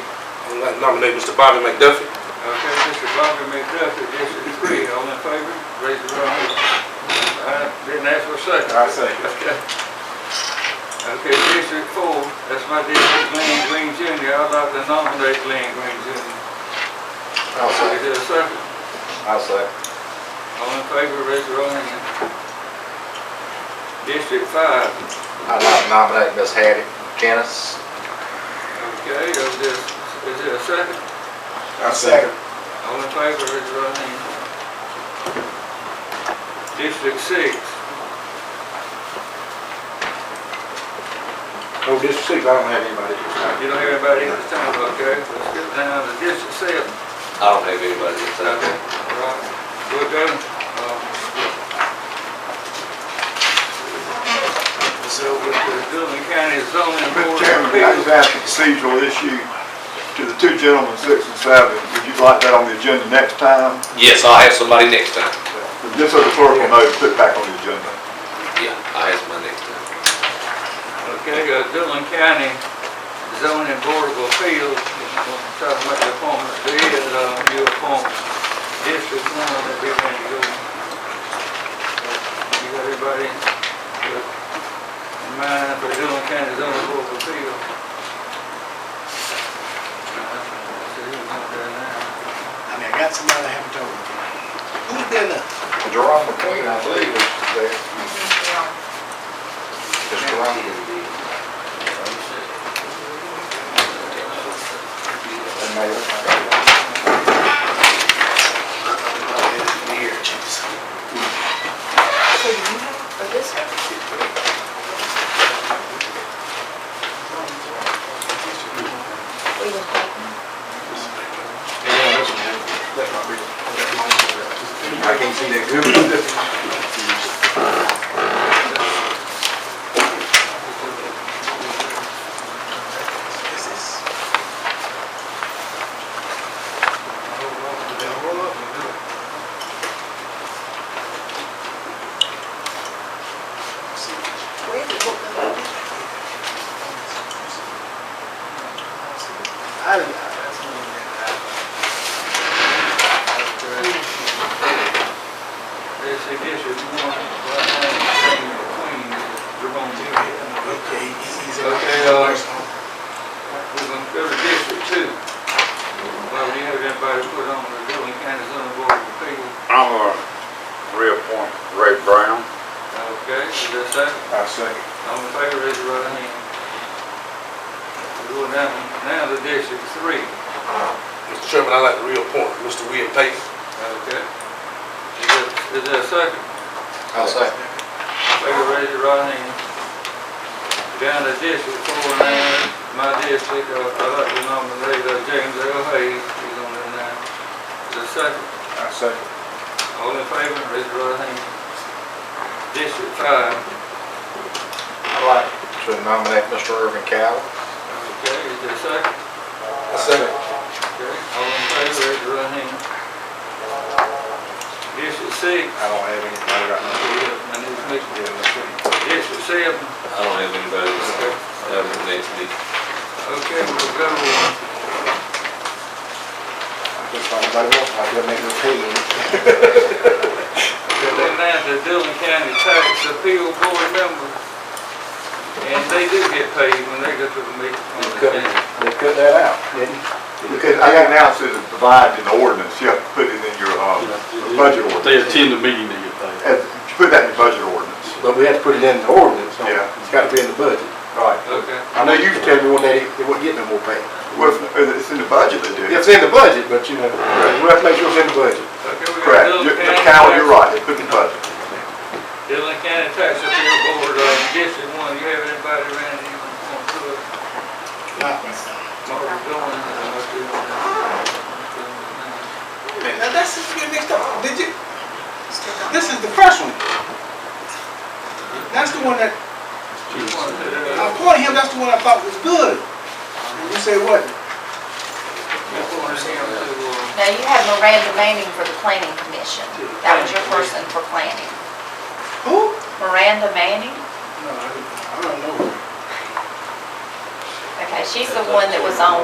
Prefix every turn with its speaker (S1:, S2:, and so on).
S1: I'd like to nominate Mr. Bobby McDuffie.
S2: Okay, Mr. Bobby McDuffie, District Three, all in favor, raise your right hand. I didn't ask for a second.
S3: I second.
S2: Okay. Okay, District Four, that's my district, Glenn Green Junior, I'd like to nominate Glenn Green Junior.
S3: I'll
S2: Is there a second?
S3: I'll second.
S2: All in favor, raise your right hand. District Five,
S3: I'd like to nominate Ms. Hattie Janice.
S2: okay, is there, is there a second?
S3: I'll second.
S2: All in favor, raise your right hand. District Six,
S3: No, Oh, District Six, I don't have anybody.
S2: You don't hear anybody this time, okay? Let's get down to District Seven.
S4: I don't have anybody that's out
S2: Okay.
S4: there.
S2: All right. We're done. Um, So with the Dillon County zoning board.
S5: Mr. Chairman, I just have a procedural issue to the two gentlemen, six and seven. Would you like that on the agenda next time?
S4: Yes, I'll have somebody next time.
S5: Just so the clerk will know, to put it back on the agenda.
S4: Yeah, I'll have somebody next time.
S2: Okay, uh, Dillon County zoning board of appeals, I'm trying to make the appointment, there is, uh, new appointment. District one that we're going to go. You got everybody in mind for Dillon County zoning board of appeals?
S6: I mean, I got somebody I haven't told. Who's been the,
S3: Jerome McQueen, I believe, is there. Is Jerome? That may have-
S6: the year, Jesus.
S7: So you have a district? We will have-
S3: I can see that good.
S6: This is. Hold up, hold up.
S7: Where is it? What-
S6: I didn't, that's one that I.
S2: This is District one, right name, Queen, Jerome Hill.
S6: Okay, he's.
S2: Okay, uh, We're gonna go to District Two. Well, we have everybody put on the Dillon County zoning board of appeals.
S8: I'm gonna reappoint Ray Brown.
S2: Okay, is there a second?
S3: I second.
S2: All in favor, raise your right hand. We're going down, now to District Three.
S1: Mr. Chairman, I'd like to reappoint Mr. William Payton.
S2: Okay. Is there, is there a second?
S3: I'll second.
S2: Favor, raise your right hand. Down to District Four now, my district, uh, I'd like to nominate uh, James L. Hayes, he's on there now. Is there a second?
S3: I second.
S2: All in favor, raise your right hand. District five,
S3: I'd like to nominate Mr. Irvin Cowell.
S2: okay, is there a second?
S1: I second.
S2: Okay, all in favor, raise your right hand. District six,
S3: I don't have anybody right now.
S2: I need to make- district seven,
S4: I don't have anybody that's out there next week.
S2: okay, we'll go to
S3: I just thought anybody else might be able to make an opinion.
S2: They're now the Dillon County Tax Appeal Board member. And they do get paid when they go to the meeting. on the
S3: Cut-
S2: agenda.
S3: They cut that out, didn't
S5: Because I got now says it's provided in the ordinance, you have to put it in your, uh, budget ordinance. They attend the meeting, they get paid. You put that in your budget ordinance.
S3: But we had to put it in the ordinance, so
S5: Yeah.
S3: it's gotta be in the budget. Right.
S2: Okay,
S3: I know you can tell everyone that it- they wouldn't get no more pay.
S5: Well, it's in the budget they do.
S3: It's in the budget, but you know, we have to make sure it's in the budget.
S2: okay, we got
S5: Correct.
S2: Dillon
S5: You're-
S2: County.
S5: Cal, you're
S2: Tax-
S5: right, they put it in the budget.
S2: Dillon County Tax Appeal Board, uh, District One, you have anybody around you on on tour? Mark Dillon, uh, what's his name?
S6: Now, that's just get mixed up. uh, Did you, this is the first one. That's the one that,
S2: Just wanted to,
S6: I
S2: uh,
S6: appointed him, that's the one I thought was good. And you say what?
S2: just wanted him to, uh,
S7: Now, you have Miranda Manning for the planning commission. That was your person for planning.
S6: Who?
S7: Miranda Manning?
S6: No, I don't- I don't know.
S7: Okay, she's the one that was on